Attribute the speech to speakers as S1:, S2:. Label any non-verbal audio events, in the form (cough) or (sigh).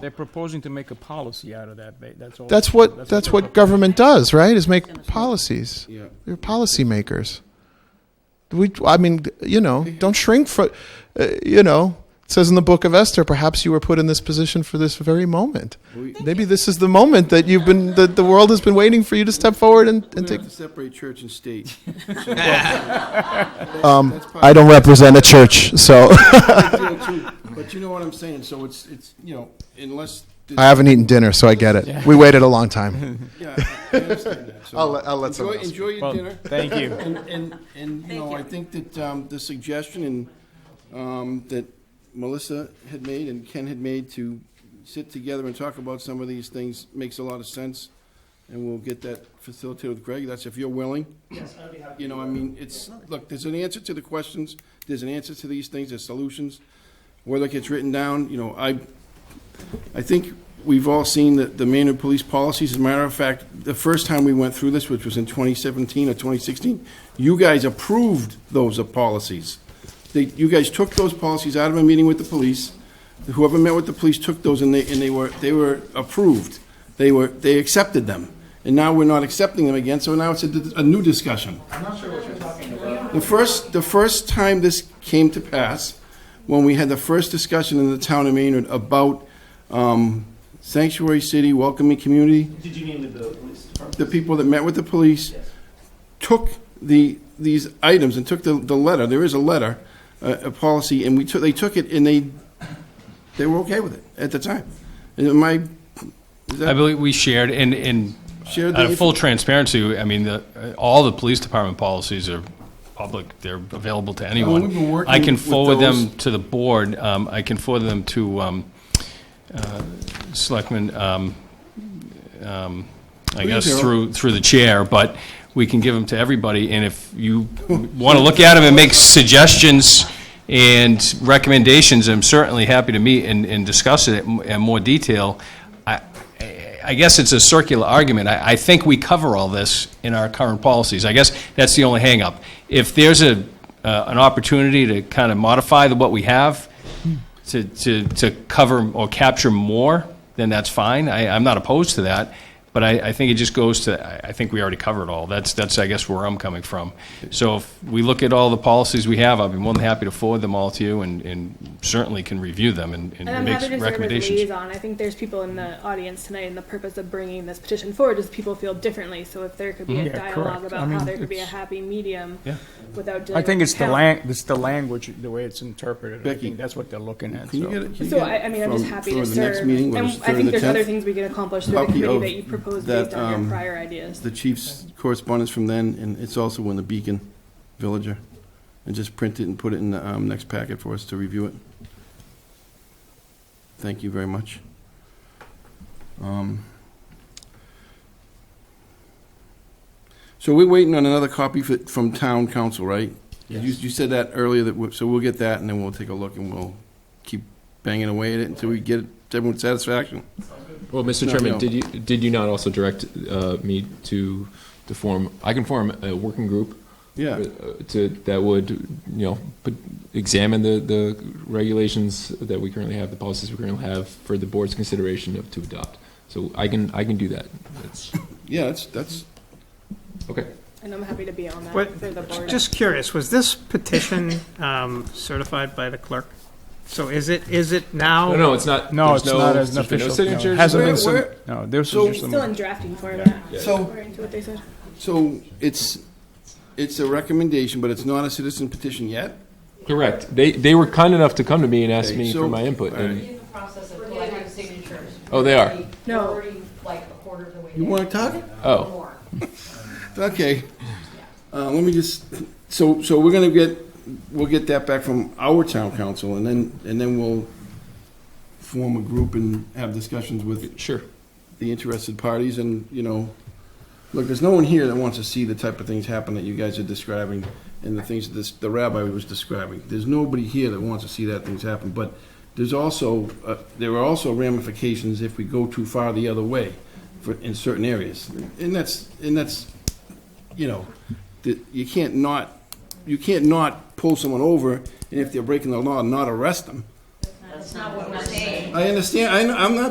S1: They're proposing to make a policy out of that, ba- that's all.
S2: That's what,
S1: they're
S2: that's what
S1: proposing.
S2: government does, right, is make policies.
S3: Yeah.
S2: They're policymakers. We, I mean, you know, don't shrink for, uh, you know, it says in the book of Esther, perhaps you were put in this position for this very moment.
S3: We-
S2: Maybe this is the moment that you've been, that the world has been waiting for you to step forward and,
S3: We're
S2: and
S3: gonna
S2: take.
S3: have to separate church and state.
S2: Um, I don't represent a church, so
S3: deal, too. But you know what I'm saying, so it's, it's, you know, unless,
S2: (laughs) I haven't eaten dinner, so I get it. We waited a long time.
S3: yeah,
S2: (laughs)
S3: I understand that. So
S2: I'll let- I'll let someone
S3: enjoy-
S2: else.
S3: Enjoy your
S1: Well,
S3: dinner.
S1: thank you.
S3: And, and, and, you know, I think that um, the suggestion and, um, that Melissa had made and Ken had made to sit together and talk about some of these things makes a lot of sense. And we'll get that facilitated with Greg, that's if you're willing. Yes, I'd be happy. You know, I mean, it's, look, there's an answer to the questions, there's an answer to these things, there's solutions. Whether it gets written down, you know, I, I think we've all seen the, the Maynard police policies. As a matter of fact, the first time we went through this, which was in 2017 or 2016, you guys approved those uh, policies. They, you guys took those policies out of a meeting with the police. Whoever met with the police took those and they, and they were, they were approved. They were, they accepted them. And now we're not accepting them again, so now it's a, a new discussion. The first, the first time this came to pass, when we had the first discussion in the town of Maynard about um, sanctuary city, welcoming community,
S4: Did you name the police department?
S3: the people that met with the police took the, these items and took the, the letter, there is a letter, a, a policy, and we took, they took it and they, they were okay with it at the time. And my, is
S5: I
S3: that
S5: believe we shared, and, and
S3: Shared
S5: out
S3: the
S5: of full transparency, I mean, the, uh, all the police department policies are public, they're available to anyone.
S3: we've been working
S5: I can
S3: with
S5: forward
S3: those.
S5: them to the board, um, I can forward them to, um, uh, Selectman, um, um, I
S3: Please,
S5: guess,
S3: Harold.
S5: through, through the chair, but we can give them to everybody, and if you want to look at them and make suggestions and recommendations, I'm certainly happy to meet and, and discuss it in in more detail. I, I guess it's a circular argument. I, I think we cover all this in our current policies. I guess that's the only hangup. If there's a, uh, an opportunity to kind of modify the, what we have, to, to, to cover or capture more, then that's fine. I, I'm not opposed to that. But I, I think it just goes to, I, I think we already covered all. That's, that's, I guess, where I'm coming from. So if we look at all the policies we have, I'd be more than happy to forward them all to you and, and certainly can review them and, and
S6: And I'm
S5: make
S6: happy to serve as a
S5: recommendations.
S6: liaison. I think there's people in the audience tonight, and the purpose of bringing this petition forward is people feel differently. So if there could be a
S1: Mm-hmm. Yeah, correct.
S6: dialogue
S1: I
S6: about
S1: mean,
S6: how there could be a
S1: it's-
S6: happy medium
S5: Yeah.
S6: without dealing
S1: I think
S6: with
S1: it's the
S6: count.
S1: lang, it's the language, the way it's interpreted. I
S3: Becky.
S1: think that's what they're looking at,
S3: Can you get
S1: so.
S3: it? can you
S6: So
S3: get
S6: I, I mean, I'm just
S3: from-
S6: happy
S3: for
S6: to
S3: the
S6: serve.
S3: next meeting, which
S6: and
S3: is
S6: I
S3: through
S6: think
S3: the
S6: there's other
S3: 10th?
S6: things we can accomplish through the
S3: Copy
S6: committee
S3: of
S6: that you propose
S3: that,
S6: based on
S3: um,
S6: your prior ideas.
S3: the chief's correspondence from then, and it's also in the Beacon Villager. And just print it and put it in the um, next packet for us to review it. Thank you very much. Um, So we're waiting on another copy fi- from town council, right? You- You said that earlier, that, we- so we'll get that, and then we'll take a look, and we'll keep banging away at it until we get everyone's satisfaction.
S7: Well, Mr.
S3: No, no.
S7: Chairman, did you, did you not also direct uh, me to, to form, I can form a working group?
S3: Yeah.
S7: uh, To, that would, you know, put- examine the, the regulations that we currently have, the policies we currently have for the board's consideration of, to adopt. So I can, I can do that. That's,
S3: Yeah, that's, that's,
S7: okay.
S6: And I'm happy to be on that
S8: But
S6: for the board.
S8: Just curious, was this petition um, certified by the clerk? So is it, is it now?
S7: No, no, it's not.
S1: No,
S7: there's
S1: it's not as an
S7: there's
S1: official.
S7: No
S1: no, it
S7: signatures.
S1: Hasn't been,
S3: Where- where-
S1: sub- no, there's
S3: So-
S1: just
S6: It's
S1: some.
S6: still in drafting format,
S3: so.
S6: according to what they said.
S3: So it's, it's a recommendation, but it's not a citizen petition yet?
S7: Correct. They, they were kind enough to come to me and ask
S3: Okay,
S7: me
S3: so-
S7: for my input.
S3: all right.
S7: and-
S9: In the process of collecting signatures.
S7: Oh, they are?
S9: We're
S6: No.
S9: already like a quarter of the way.
S3: You
S9: there.
S3: wanna talk?
S7: Oh.
S9: More.
S3: Okay. Uh, let me just, so, so we're gonna get, we'll get that back from our town council and then, and then we'll form a group and have discussions with
S7: Sure.
S3: the interested parties and, you know, look, there's no one here that wants to see the type of things happen that you guys are describing and the things that this, the rabbi was describing. There's nobody here that wants to see that things happen, but there's also, uh, there are also ramifications if we go too far the other way for, in certain areas. And that's, and that's, you know, that you can't not, you can't not pull someone over and if they're breaking the law, not arrest them.
S9: That's not what we're saying.
S3: I understand, I, I'm not